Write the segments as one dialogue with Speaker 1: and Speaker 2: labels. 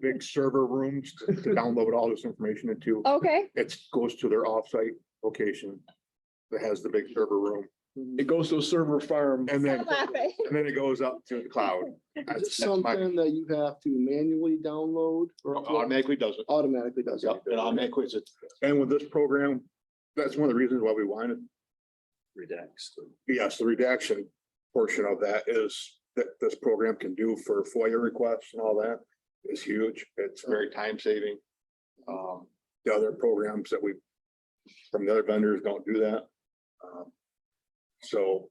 Speaker 1: big server rooms to to download all this information into.
Speaker 2: Okay,
Speaker 1: It goes to their offsite location that has the big server room.
Speaker 3: It goes to a server farm.
Speaker 1: And
Speaker 2: I'm
Speaker 1: then,
Speaker 2: laughing.
Speaker 1: and then it goes up to the cloud. That's-
Speaker 3: It's
Speaker 1: that's my-
Speaker 3: something that you have to manually download or
Speaker 4: Oh,
Speaker 3: upload.
Speaker 1: Automatically does it.
Speaker 3: automatically does it.
Speaker 1: Yep, and automatically
Speaker 3: it.
Speaker 1: And with this program, that's one of the reasons why we wanted,
Speaker 3: Redacts.
Speaker 1: yes, the redaction portion of that is that this program can do for FOIA requests and all that is huge. It's very time saving. Um, the other programs that we, from the other vendors don't do that. Um, So,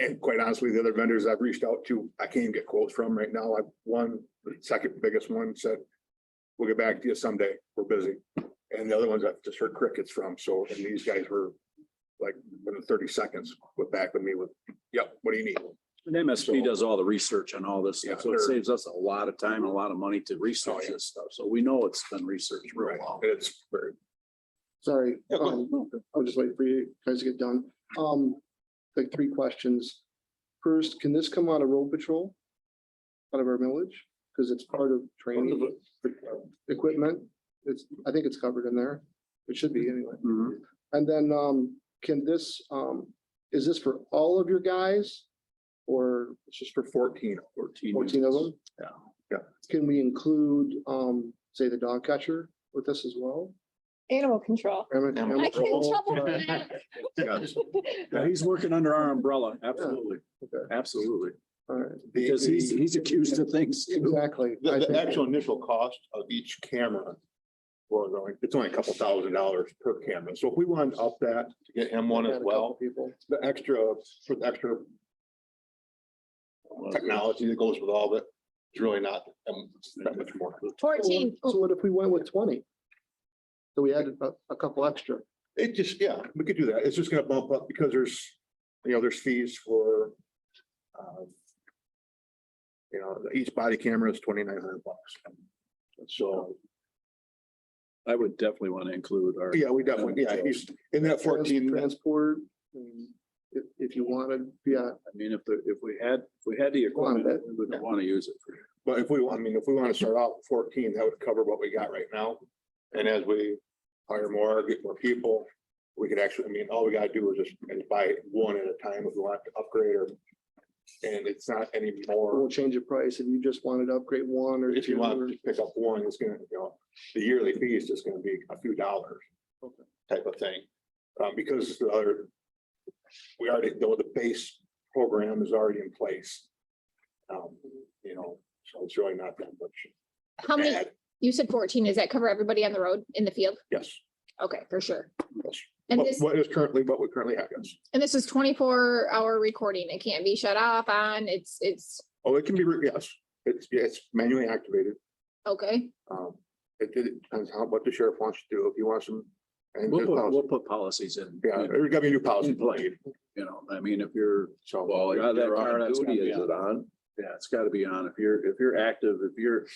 Speaker 1: and quite honestly, the other vendors I've reached out to, I can't even get quotes from right now. I, one, the second biggest one said, we'll get back to you someday. We're busy. And the other ones I've just heard crickets from. So, and these guys were like, within thirty seconds, went back with me with, yep, what do you need?
Speaker 4: And MSP does all the research on all this
Speaker 1: Yeah,
Speaker 4: stuff, so it
Speaker 1: they're-
Speaker 4: saves us a lot of time, and a lot of money to research
Speaker 1: yeah.
Speaker 4: this stuff, so we know it's been researched real
Speaker 1: Right,
Speaker 4: well.
Speaker 1: and it's very,
Speaker 3: Sorry,
Speaker 4: Yeah, go ahead.
Speaker 3: um, I'll just wait for you guys to get done. Um, like three questions. First, can this come out of road patrol? Out of our village? Because it's part of training equipment. It's, I think it's covered in there. It should be anyway.
Speaker 1: Mm-hmm.
Speaker 4: Mhm.
Speaker 3: And then, um, can this, um, is this for all of your guys? Or
Speaker 1: it's just for fourteen.
Speaker 4: Fourteen.
Speaker 3: fourteen of them?
Speaker 4: Yeah.
Speaker 1: Yeah.
Speaker 3: Can we include, um, say the dog catcher with this as well?
Speaker 2: Animal control.
Speaker 3: Am I- am
Speaker 2: I
Speaker 3: I
Speaker 2: get in
Speaker 3: wrong?
Speaker 2: trouble for that.
Speaker 1: Yes.
Speaker 4: Yeah, he's working under our umbrella, absolutely,
Speaker 3: Okay.
Speaker 4: absolutely,
Speaker 3: All right,
Speaker 1: The-
Speaker 4: because he's, he's accused of things.
Speaker 3: exactly. I
Speaker 1: The, the
Speaker 3: think-
Speaker 1: actual initial cost of each camera was only, it's only a couple thousand dollars per camera. So if we wanted to up that to get him one
Speaker 3: Had
Speaker 1: as
Speaker 3: a couple
Speaker 1: well,
Speaker 3: People.
Speaker 1: the extra, for the extra technology that goes with all of it, it's really not um, that much more.
Speaker 2: Fourteen.
Speaker 3: So what if we went with twenty? So we added a, a couple extra.
Speaker 1: It just, yeah, we could do that. It's just gonna bump up because there's, you know, there's fees for um, you know, each body camera is twenty-nine hundred bucks. So,
Speaker 4: I would definitely want to include our.
Speaker 1: yeah, we definitely, yeah, he's in that fourteen.
Speaker 3: Transport, um, if, if you wanted, yeah,
Speaker 4: I mean, if the, if we had, if we had the equipment, we would want to use it for.
Speaker 1: But if we, I mean, if we want to start out with fourteen, that would cover what we got right now. And as we hire more, get more people, we could actually, I mean, all we gotta do is just is buy one at a time if we want to upgrade or. And it's not any more,
Speaker 3: we'll change the price and you just wanted to upgrade one or.
Speaker 1: if you
Speaker 3: two
Speaker 1: want
Speaker 3: or-
Speaker 1: to pick up one, it's gonna, you know, the yearly fee is just gonna be a few dollars.
Speaker 3: Okay.
Speaker 1: Type of thing, uh, because the other. We already know the base program is already in place. Um, you know, so it's really not that much.
Speaker 2: How many,
Speaker 1: add.
Speaker 2: you said fourteen. Does that cover everybody on the road in the field?
Speaker 1: Yes.
Speaker 2: Okay, for sure.
Speaker 1: Yes.
Speaker 2: And
Speaker 1: What-
Speaker 2: this,
Speaker 1: What is currently, what we currently have, yes.
Speaker 2: and this is twenty-four hour recording. It can't be shut off on. It's, it's,
Speaker 1: Oh, it can be, re- yes, it's, yeah, it's manually activated.
Speaker 2: okay.
Speaker 1: Um, it, it depends how, what the sheriff wants to do, if he wants some. And
Speaker 4: We'll
Speaker 1: there's
Speaker 4: put, we'll
Speaker 1: policy-
Speaker 4: put policies in.
Speaker 1: yeah, there's gotta be a new policy,
Speaker 4: In play. You know, I mean, if you're
Speaker 1: so.
Speaker 4: Well,
Speaker 1: if
Speaker 4: yeah, that
Speaker 1: you're on
Speaker 4: car, that's
Speaker 1: duty,
Speaker 4: gotta be
Speaker 1: it's-
Speaker 4: on. Yeah, it's gotta be on. If you're, if you're active, if you're,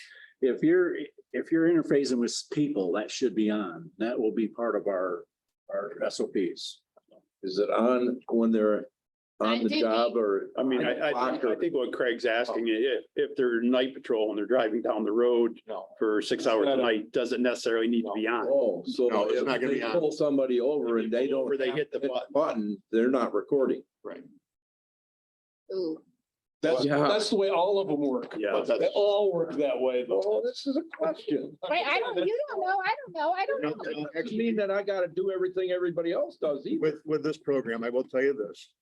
Speaker 4: if you're, if you're interfacing with people, that should be on. That will be part of our, our SOPs.
Speaker 5: Is it on when they're
Speaker 2: I
Speaker 5: on the
Speaker 2: think-
Speaker 5: job or?
Speaker 6: I mean,
Speaker 5: on the
Speaker 6: I, I,
Speaker 5: clock
Speaker 6: think- I
Speaker 5: or-
Speaker 6: think what Craig's
Speaker 5: Oh.
Speaker 6: asking, i- if, if they're night patrol and they're driving down the road
Speaker 1: No,
Speaker 6: for six hours a night, doesn't necessarily need to be on.
Speaker 5: Oh, so
Speaker 1: No, it's
Speaker 5: if
Speaker 1: not gonna
Speaker 5: they
Speaker 1: be on.
Speaker 5: pull somebody over and they don't.
Speaker 6: Where they
Speaker 5: have
Speaker 6: hit the
Speaker 5: to
Speaker 6: button.
Speaker 5: Button, they're not recording.
Speaker 2: Ooh.
Speaker 7: That's,
Speaker 5: Yeah.
Speaker 7: that's the way all of them work.
Speaker 6: Yeah,
Speaker 1: but
Speaker 7: They
Speaker 1: that's-
Speaker 7: all work that way. Oh, this is a question.
Speaker 2: Right, I don't, you don't know. I don't know. I
Speaker 1: no,
Speaker 2: don't know.
Speaker 1: no,
Speaker 5: Doesn't
Speaker 1: actually,
Speaker 5: mean that I gotta do everything everybody else does either.
Speaker 1: With, with this program, I will tell you this.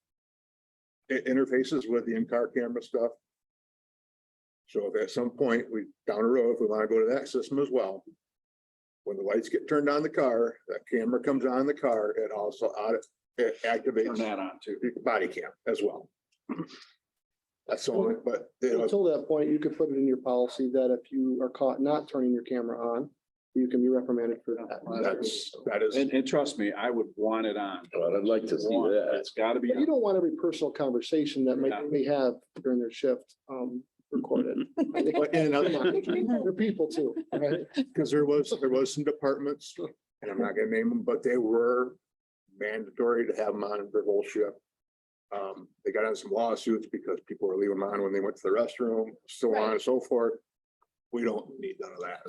Speaker 1: It interfaces with the in-car camera stuff. So if at some point we, down the road, if we want to go to that system as well. When the lights get turned on in the car, that camera comes on in the car, it also audit, it
Speaker 4: Turn
Speaker 1: activates.
Speaker 4: that on too.
Speaker 1: your body cam as well. That's all, but you know,
Speaker 3: Until that point, you could put it in your policy that if you are caught not turning your camera on, you can be reprimanded for that.
Speaker 1: that's, that is,
Speaker 4: And, and trust me, I would want it on.
Speaker 5: God, I'd like to see
Speaker 4: Want it.
Speaker 5: that.
Speaker 4: It's gotta be.
Speaker 3: But you don't want every personal conversation that
Speaker 4: Yeah.
Speaker 3: might, they have during their shift, um, recorded. I think-
Speaker 1: but in another,
Speaker 3: They're people too, right?
Speaker 1: because there was, there was some departments, and I'm not gonna name them, but they were mandatory to have them on their whole shift. Um, they got on some lawsuits because people were leaving them on when they went to the restroom, so on and so forth. we don't need none of that.